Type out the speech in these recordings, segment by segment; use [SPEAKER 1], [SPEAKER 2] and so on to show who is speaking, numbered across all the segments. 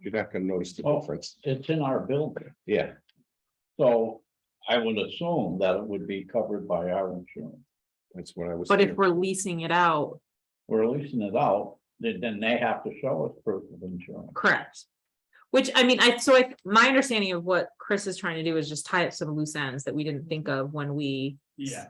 [SPEAKER 1] you're not gonna notice the
[SPEAKER 2] Oh.
[SPEAKER 1] difference.
[SPEAKER 2] It's in our building,
[SPEAKER 1] Yeah,
[SPEAKER 2] so I would assume that it would be covered by our insurance.
[SPEAKER 1] that's what I was.
[SPEAKER 3] But if
[SPEAKER 1] thinking.
[SPEAKER 3] we're leasing it out,
[SPEAKER 2] We're leasing it out, then, then they have to show us proof of insurance.
[SPEAKER 3] correct? Which, I mean, I, so I, my understanding of what Chris is trying to do is just tie up some loose ends that we didn't think of when we.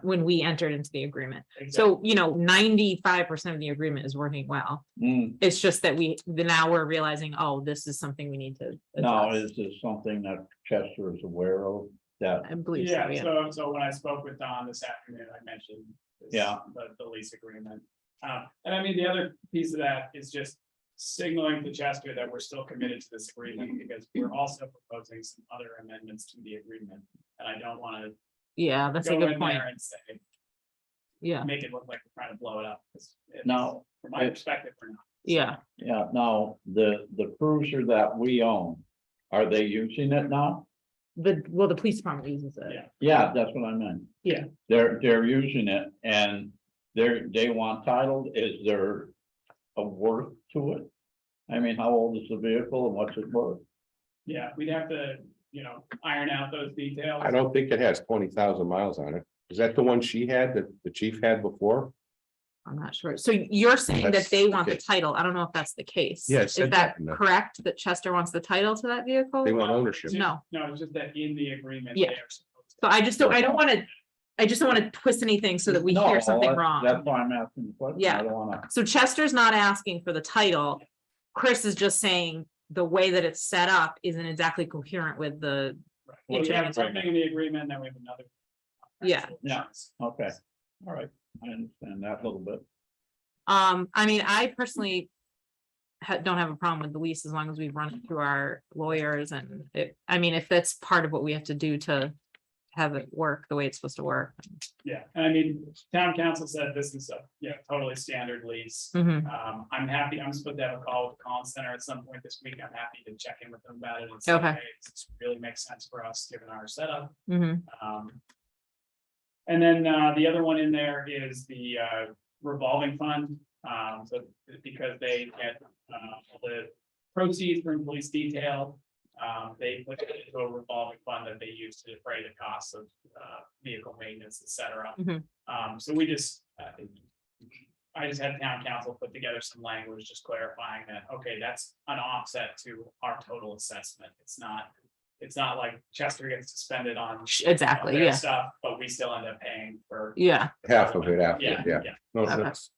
[SPEAKER 3] When we entered into the agreement. So, you know, ninety-five percent of the agreement is working well.
[SPEAKER 2] Hmm,
[SPEAKER 3] It's just that we, the- now we're realizing, oh, this is something we need to.
[SPEAKER 2] now,
[SPEAKER 3] address.
[SPEAKER 2] is this something that Chester is aware of, that,
[SPEAKER 3] I believe so,
[SPEAKER 4] Yeah,
[SPEAKER 3] yeah.
[SPEAKER 4] so, so when I spoke with Don this afternoon, I mentioned. this-
[SPEAKER 2] Yeah.
[SPEAKER 4] The, the lease agreement. Uh, and I mean, the other piece of that is just signaling to Chester that we're still committed to this agreement because we're also proposing some other amendments to the agreement. And I don't want to
[SPEAKER 3] Yeah, that's a
[SPEAKER 4] go
[SPEAKER 3] good
[SPEAKER 4] in
[SPEAKER 3] point.
[SPEAKER 4] there and say,
[SPEAKER 3] Yeah,
[SPEAKER 4] make it look like we're trying to blow it up. 'cause it's-
[SPEAKER 2] No,
[SPEAKER 4] From my
[SPEAKER 2] it-
[SPEAKER 4] perspective, we're not.
[SPEAKER 3] yeah.
[SPEAKER 2] yeah, now, the, the cruiser that we own, are they using it now?
[SPEAKER 3] The, well, the police department uses it.
[SPEAKER 4] Yeah.
[SPEAKER 2] Yeah, that's what I meant.
[SPEAKER 3] Yeah.
[SPEAKER 2] They're, they're using it, and they're, they want title, is there a worth to it? I mean, how old is the vehicle and what's it worth?
[SPEAKER 4] Yeah, we'd have to, you know, iron out those details.
[SPEAKER 1] I don't think it has twenty thousand miles on it. Is that the one she had that the chief had before?
[SPEAKER 3] I'm not sure. So you're saying that
[SPEAKER 1] That's
[SPEAKER 3] they want the
[SPEAKER 1] okay.
[SPEAKER 3] title. I don't know if that's the case.
[SPEAKER 1] Yeah, it
[SPEAKER 3] Is
[SPEAKER 1] said
[SPEAKER 3] that
[SPEAKER 1] that in the-
[SPEAKER 3] correct? That Chester wants the title to that vehicle?
[SPEAKER 1] They want ownership.
[SPEAKER 3] No.
[SPEAKER 4] No, it's just that in the agreement.
[SPEAKER 3] Yeah.
[SPEAKER 4] they are supposed
[SPEAKER 3] So I just don't, I don't want to, I just don't want to twist anything so that we
[SPEAKER 2] No,
[SPEAKER 3] hear something
[SPEAKER 1] uh,
[SPEAKER 2] that's- That's
[SPEAKER 3] wrong.
[SPEAKER 2] why I'm asking the question.
[SPEAKER 3] Yeah.
[SPEAKER 2] I don't wanna,
[SPEAKER 3] So Chester's not asking for the title. Chris is just saying the way that it's set up isn't exactly coherent with the,
[SPEAKER 4] Right. Well, We
[SPEAKER 3] Yeah.
[SPEAKER 4] have something in the agreement, then we have another.
[SPEAKER 3] Yeah.
[SPEAKER 2] Yeah.
[SPEAKER 4] Insurance.
[SPEAKER 2] okay, all right, I understand that a little bit.
[SPEAKER 3] um, I mean, I personally ha- don't have a problem with the lease as long as we run it through our lawyers and it, I mean, if that's part of what we have to do to have it work the way it's supposed to work.
[SPEAKER 4] Yeah, and I mean, town council said this is a, yeah, totally standard lease.
[SPEAKER 3] Mhm.
[SPEAKER 4] Um, I'm happy, I'm supposed to have a call with the Collins Center at some point this week. I'm happy to check in with them about it and say,
[SPEAKER 3] Okay.
[SPEAKER 4] hey, this really makes sense for us, given our setup.
[SPEAKER 3] Mhm.
[SPEAKER 4] Um. And then, uh, the other one in there is the, uh, revolving fund, um, so because they get, uh, all the proceeds from police detail. Um, they put it into a revolving fund that they use to defray the costs of, uh, vehicle maintenance, et cetera.
[SPEAKER 3] Mhm.
[SPEAKER 4] Um, so we just, uh, I just had town council put together some language, just clarifying that, okay, that's an offset to our total assessment. It's not, it's not like Chester gets suspended on
[SPEAKER 3] Exactly,
[SPEAKER 4] their
[SPEAKER 3] yeah,
[SPEAKER 4] Stuff, but we still end up paying for.
[SPEAKER 3] yeah,
[SPEAKER 1] Half of it after,
[SPEAKER 4] Yeah,
[SPEAKER 1] yeah.
[SPEAKER 4] yeah.
[SPEAKER 1] No,
[SPEAKER 3] Okay.
[SPEAKER 1] that's-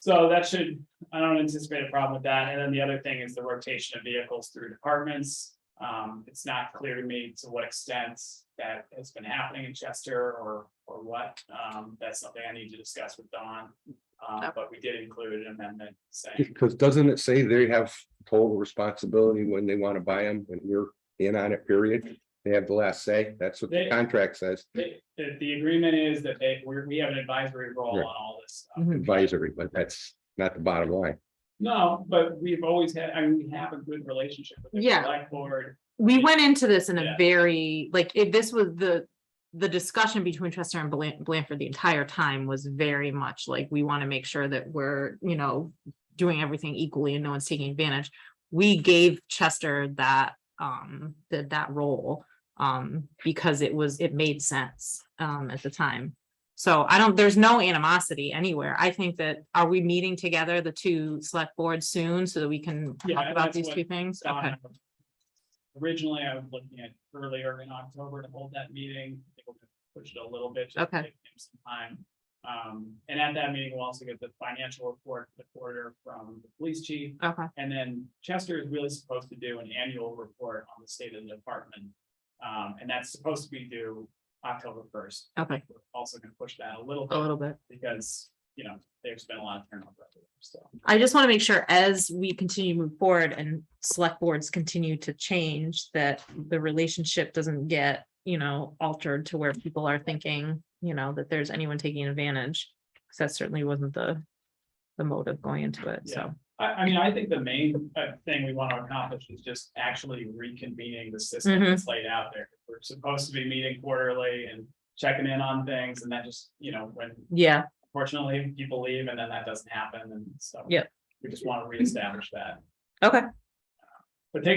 [SPEAKER 4] So that should, I don't anticipate a problem with that. And then the other thing is the rotation of vehicles through departments. Um, it's not clear to me to what extent that has been happening in Chester or, or what. Um, that's something I need to discuss with Don. Uh, but we did include an amendment saying,
[SPEAKER 1] Because doesn't it say they have total responsibility when they want to buy them and we're in on it, period? They have the last say. That's what the
[SPEAKER 4] They-
[SPEAKER 1] contract says,
[SPEAKER 4] the, the- the agreement is that they, we, we have an advisory role on
[SPEAKER 1] Right.
[SPEAKER 4] all this stuff.
[SPEAKER 3] mhm.
[SPEAKER 1] advisory, but that's not the bottom line.
[SPEAKER 4] No, but we've always had, I mean, we have a good relationship with the
[SPEAKER 3] Yeah.
[SPEAKER 4] select board.
[SPEAKER 3] we went into this in a
[SPEAKER 4] Yeah.
[SPEAKER 3] very, like, if this was the, the discussion between Chester and Blan- Blanford the entire time was very much like, we want to make sure that we're, you know, doing everything equally and no one's taking advantage. We gave Chester that, um, that, that role, um, because it was, it made sense, um, at the time. So I don't, there's no animosity anywhere. I think that, are we meeting together, the two select boards soon so that we can
[SPEAKER 4] Yeah,
[SPEAKER 3] talk
[SPEAKER 4] and
[SPEAKER 3] about
[SPEAKER 4] that's
[SPEAKER 3] these
[SPEAKER 4] what
[SPEAKER 3] two things? Okay,
[SPEAKER 4] Donna. um, Originally, I was looking at earlier in October to hold that meeting. I think we'll just Push it a little bit. just to
[SPEAKER 3] Okay.
[SPEAKER 4] give him some Time. Um, and at that meeting, we'll also get the financial report, for the quarter from the police chief.
[SPEAKER 3] okay.
[SPEAKER 4] And then Chester is really supposed to do an annual report on the state of the department. Um, and that's supposed to be due October first.
[SPEAKER 3] Okay.
[SPEAKER 4] We're Also gonna push that a little
[SPEAKER 3] a
[SPEAKER 4] bit
[SPEAKER 3] little bit.
[SPEAKER 4] because, you know, there's been a lot of turnover. over there, So.
[SPEAKER 3] I just want to make sure as we continue to move forward and select boards continue to change, that the relationship doesn't get, you know, altered to where people are thinking, you know, that there's anyone taking advantage. Because that certainly wasn't the, the motive going into it, so.
[SPEAKER 4] I, I mean, I think the main uh, thing we want to accomplish is just actually reconvening the system
[SPEAKER 3] Mhm.
[SPEAKER 4] that's laid out there. We're supposed to be meeting quarterly and checking in on things and that just, you know, when
[SPEAKER 3] Yeah,
[SPEAKER 4] fortunately people leave and then that doesn't happen and so.
[SPEAKER 3] Yep.
[SPEAKER 4] We just want to reestablish that,
[SPEAKER 3] okay.
[SPEAKER 4] but take a